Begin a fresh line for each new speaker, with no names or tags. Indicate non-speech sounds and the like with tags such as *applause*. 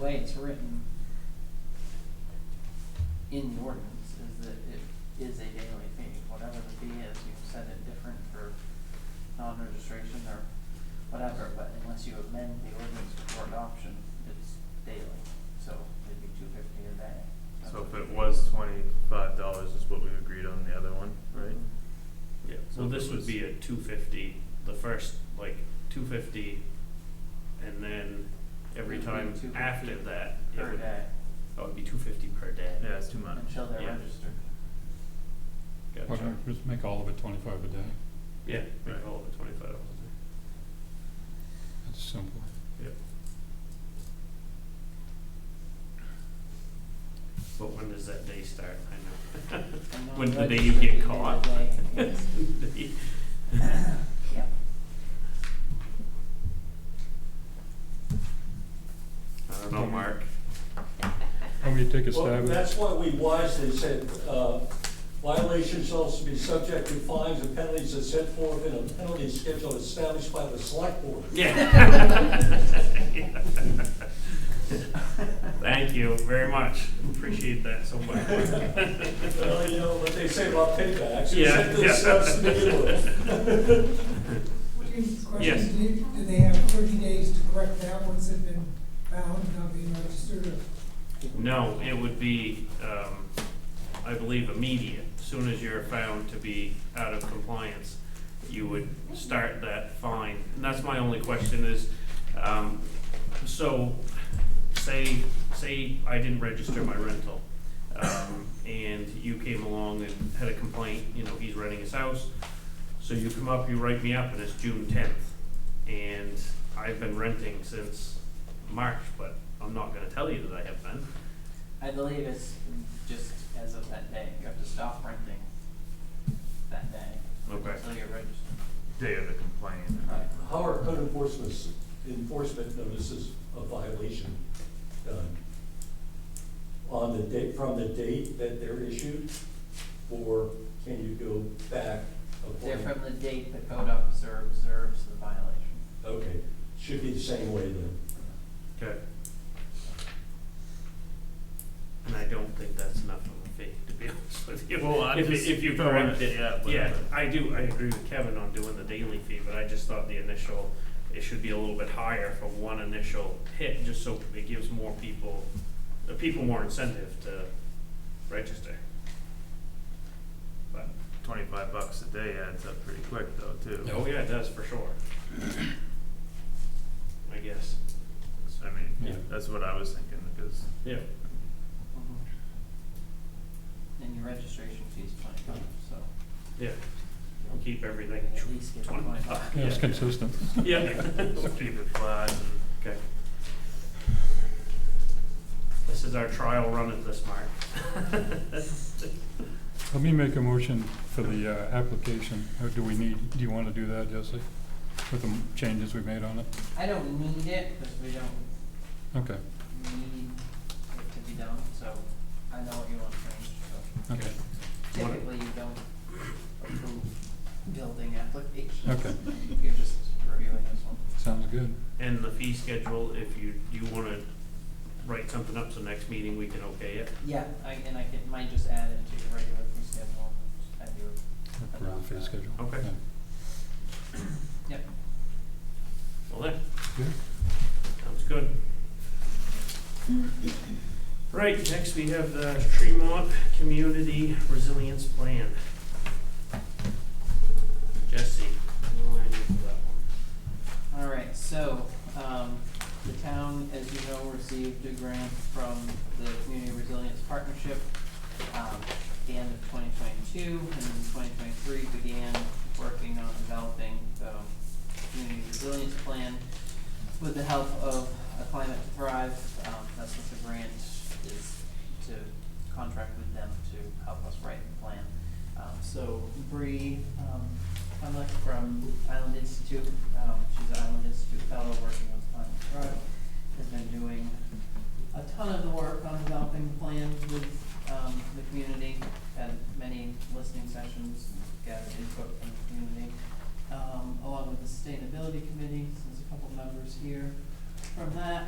way it's written in the ordinance is that it is a daily fee, whatever the fee is, you've set it different for non-registration or whatever, but unless you amend the ordinance before adoption, it's daily, so it'd be two fifty a day.
So if it was twenty-five dollars is what we agreed on the other one, right? Yeah. so
Well,
if it
this would
was-
be a two fifty, the first, like, two fifty, and then every
It would be
time
250
after that, it
Per
would,
day,
that would be two fifty per day.
Yeah, it's too much.
until they're
*laughs*
yeah.
registered.
Why
Gotcha,
don't we just make all of it twenty-five a day?
yeah, make
Right.
all of it twenty-five dollars a
That's simple.
day. But when does that day start,
*laughs*
I know.
And
When the day
non-registered
you
could be
get
the
caught.
day, yes.
That's *laughs* the day.
Yeah.
I don't know,
*laughs*
Mark,
Why don't you take a
Well,
stab at it?
that's why we wisely said, uh, violations shall also be subject to fines and penalties as set forth in a penalty schedule established by the select board. *laughs*
yeah. Thank you very much, appreciate that so much.
*laughs* Well, you know what they say about paybacks, you
Yeah,
set
yeah.
this up to begin with.
Yes.
Question, do, do they have thirty days to correct that once it's been found not being registered? or-
No, it would be, um, I believe immediate, soon as you're found to be out of compliance, you would start that fine. And that's my only question is, um, so, say, say I didn't register my rental, um, and you came along and had a complaint, you know, he's renting his house, so you come up, you write me up, and it's June tenth, and I've been renting since March, but I'm not gonna tell you that I have been.
I believe it's just as of that day, you have to stop renting that day.
Okay.
Until you're registered.
Day of the complaint.
How are code enforcement, enforcement notices of violation done? On the date, from the date that they're issued, or can you go back?
They're
according-
from the date the code officer observes the violation.
Okay, should be the same way then.
Okay. And I don't think that's enough of a fee, to be *laughs* honest with you.
Well, I
If-
just
If you
don't wanna-
correct it,
yeah, but-
yeah, I do, I agree with Kevin on doing the daily fee, but I just thought the initial, it should be a little bit higher for one initial hit, just so it gives more people, the people more incentive to register. But,
Twenty-five bucks a day adds up pretty quick though, too.
oh yeah, it does for sure. *coughs* I guess,
I mean,
Yeah.
that's what I was thinking because
yeah.
Mm-hmm. And your registration fee's twenty-five, so
Yeah, I'll keep everything
at least get twenty-five.
Yeah, it's
Yeah.
consistent.
*laughs* Yeah.
keep it flat and
Okay. This is our trial run at this, Mark.
*laughs* Let me make a motion for the, uh, application. How do we need, do you wanna do that, Jesse? With the m- changes we made on it?
I don't need it, because we don't
Okay,
need it to be done, so I know what you want to change, so.
okay,
Typically, you don't approve building applications.
Okay.
You're just reviewing this one.
sounds good.
And the fee schedule, if you, you wanna write something up, so next meeting we can okay it?
Yeah, I, and I can, might just add it to your regular fee schedule, as you,
Approve the fee schedule.
Okay.
Yeah.
yep.
Well then,
Good.
sounds good. Right, next we have the Tremont Community Resilience Plan. Jesse, what do I do for that one?
All right, so, um, the town, as you know, received a grant from the Community Resilience Partnership, um, at the end of twenty twenty-two, and in twenty twenty-three began working on developing the community resilience plan with the help of a Climate to Thrive, um, that's what the grant is to contract with them to help us write the plan. Um, so Bree, um, Hunlick from Island Institute, um, she's an Island Institute fellow working with Climate to Thrive, has been doing a ton of the work on developing plans with, um, the community, had many listening sessions, gathered input from the community. Um, along with the sustainability committee, so there's a couple members here from that,